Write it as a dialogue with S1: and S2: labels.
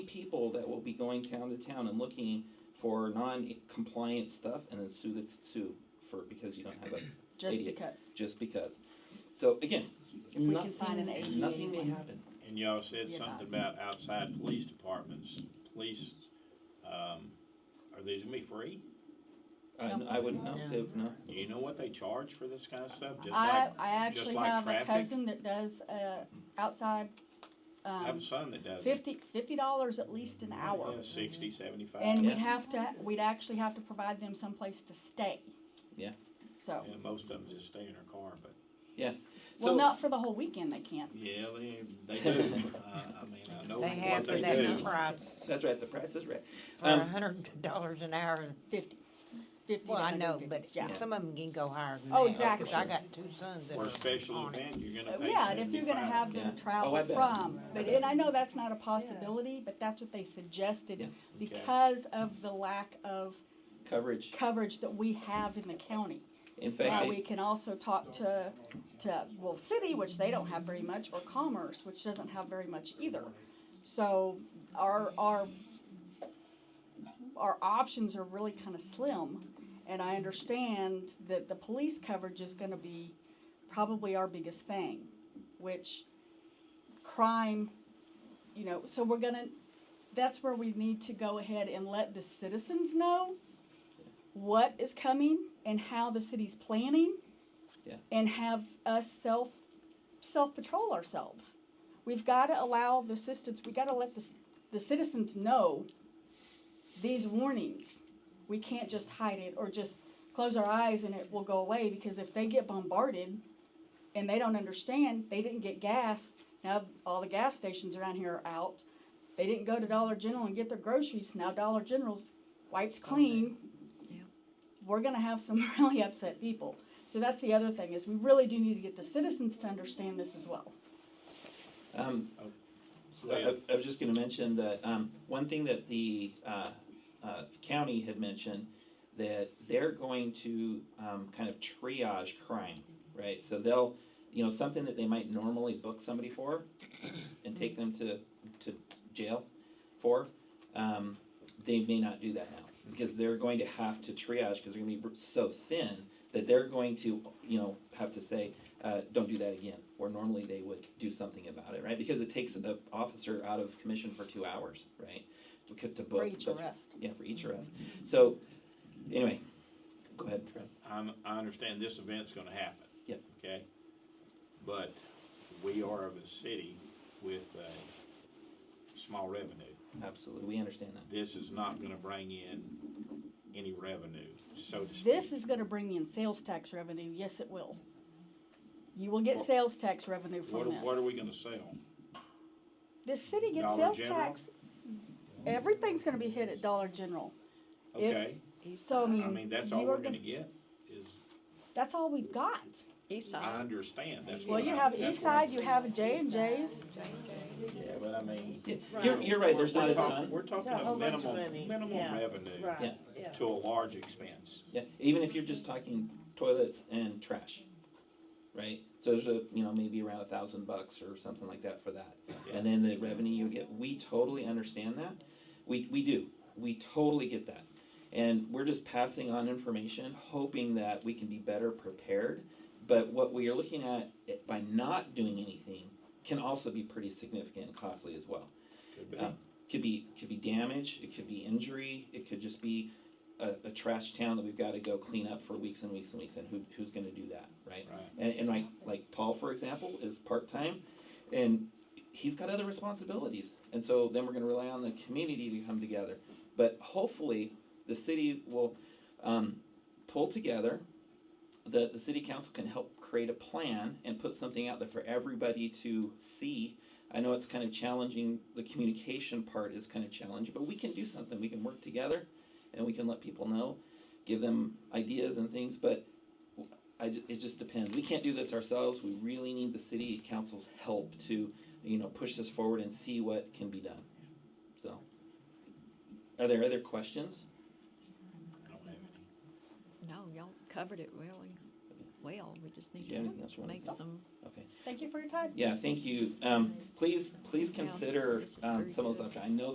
S1: people that will be going town to town and looking for non-compliant stuff and then sue that sue for, because you don't have a,
S2: just
S1: Idiot.
S2: because.
S1: just because. So again,
S2: If we can find an
S1: nothing,
S2: ADA
S1: nothing may
S2: one.
S1: happen.
S3: And y'all said
S2: Yeah,
S3: something
S2: nice.
S3: about outside police departments, police, um, are these gonna be free?
S1: I,
S2: No.
S1: I wouldn't know,
S4: No.
S1: They would know.
S3: Do you know what they charge for this kind of stuff, just
S2: I,
S3: like,
S2: I
S3: just
S2: actually
S3: like
S2: have a
S3: traffic?
S2: cousin that does, uh, outside,
S3: I have a Mm-hmm.
S2: um,
S3: son that does it.
S2: fifty, fifty dollars at least an hour.
S3: Yeah, Sixty, seventy-five.
S2: And
S1: Yeah.
S2: we'd have to, we'd actually have to provide them someplace to stay.
S1: Yeah.
S2: So,
S3: Yeah, most of them just stay in their car, but,
S2: well,
S1: So-
S2: not for the whole weekend they can't.
S3: yeah, they, they do, uh, I mean, I know
S4: They
S3: what
S4: have for
S3: they
S4: that
S3: do.
S4: price,
S1: That's right, the price is right.
S4: for
S1: Um,
S4: a hundred dollars an hour.
S2: Fifty. Fifty to
S4: Well, I know,
S2: 150,
S4: but
S2: yeah.
S4: some of them can go higher than that.
S2: Oh,
S4: 'cause
S2: exactly.
S4: I got two sons that
S3: For
S4: are
S3: a special
S4: on it.
S3: event, you're
S2: Uh,
S3: gonna pay
S2: Yeah, and if you're gonna have
S3: seventy-five.
S1: Yeah.
S2: them
S1: Oh, I
S2: travel
S1: bet.
S2: from, but, and I know that's not a possibility, but that's what they
S1: Yeah.
S2: suggested
S3: Okay.
S2: because of the lack of
S1: Coverage,
S2: coverage that we have in the county.
S1: in fact,
S2: Now,
S1: I-
S2: we can also talk to, to Wolf City, which they don't have very much, or Commerce, which doesn't have very much either. So our, our, our options are really kind of slim. And I understand that the police coverage is gonna be probably our biggest thing, which crime, you know, so we're gonna, that's where we need to go ahead and let the citizens know what is coming and how the city's planning.
S1: Yeah.
S2: And have us self, self-patrol ourselves. We've gotta allow the citizens, we gotta let the, c- the citizens know these warnings. We can't just hide it or just close our eyes and it will go away, because if they get bombarded and they don't understand, they didn't get gas, now all the gas stations around here are out. They didn't go to Dollar General and get their groceries, now Dollar General's wipes clean, we're gonna have some really upset people. So that's the other thing, is we really do need to get the citizens to understand this as well.
S1: Um,
S3: Go
S1: I,
S3: ahead.
S1: I was just gonna mention that, um, one thing that the, uh, uh, county had mentioned, that they're going to, um, kind of triage crime, right? So they'll, you know, something that they might normally book somebody for and take them to, to jail for, um, they may not do that now. Because they're going to have to triage, because they're gonna be so thin, that they're going to, you know, have to say, uh, don't do that again, where normally they would do something about it, right? Because it takes the officer out of commission for two hours, right? To c- to book-
S2: For each
S1: but-
S2: arrest. Mm-hmm.
S1: Yeah, for each arrest. So, anyway, go ahead, Fred.
S3: I'm, I understand this event's gonna happen.
S1: Yep.
S3: Okay? But we are of a city with a small revenue.
S1: Absolutely, we understand that.
S3: This is not gonna bring in any revenue, so to speak.
S2: This is gonna bring in sales tax revenue, yes, it will. You will get sales tax revenue
S3: What,
S2: from
S3: are- what are
S2: this.
S3: we gonna sell?
S2: The city gets
S3: Dollar
S2: sales
S3: General?
S2: tax, everything's gonna be hit at Dollar General. If-
S3: Okay,
S2: So, I
S3: I mean,
S2: mean,
S3: that's
S2: you
S3: all we're
S2: are
S3: gonna
S2: gonna,
S3: get is,
S2: that's all we've got.
S3: I
S5: Eastside.
S3: understand, that's
S2: Well,
S3: what
S2: you
S3: I'm-
S2: have
S3: that's
S2: East
S3: what I'm-
S2: Side, you have J and J's,
S3: Yeah, but I mean.
S1: Yeah, You're, you're right, there's not a
S3: we're talk-
S1: ton,
S3: We're talking
S4: A whole
S3: of
S4: bunch of
S3: minimum,
S4: money.
S3: minimum
S4: Yeah.
S3: revenue
S1: Yeah.
S5: Right, yeah.
S3: to a large expense.
S1: yeah, even if you're just talking toilets and trash, right? So there's a, you know, maybe around a thousand bucks or something like that for that.
S3: Yeah.
S1: and then the revenue you get. We totally understand that. We, we do. We totally get that. And we're just passing on information, hoping that we can be better prepared. But what we are looking at eh, by not doing anything can also be pretty significant and costly as well.
S3: Could be.
S1: Um, Could be, could be damage, it could be injury, it could just be a, a trash town that we've gotta go clean up for weeks and weeks and weeks, and who, who's gonna do that, right?
S3: Right.
S1: And, and like, like Paul, for example, is part-time, and he's got other responsibilities. And so then we're gonna rely on the community to come together. But hopefully, the city will, um, pull together, the, the city council can help create a plan and put something out there for everybody to see. I know it's kind of challenging, the communication part is kind of challenging, but we can do something, we can work together, and we can let people know, give them ideas and things, but I, ju- it just depends. We can't do this ourselves. We really need the city council's help to, you know, push this forward and see what can be done. So, are there other questions?
S3: I don't have any.
S5: No, y'all covered it really well. We just need
S1: Yeah, anything else you
S5: to
S1: wanna
S5: make
S1: say?
S5: some.
S1: Okay.
S2: thank you for your time.
S1: Yeah, thank you. Um, please, please consider, um, some of those options. I know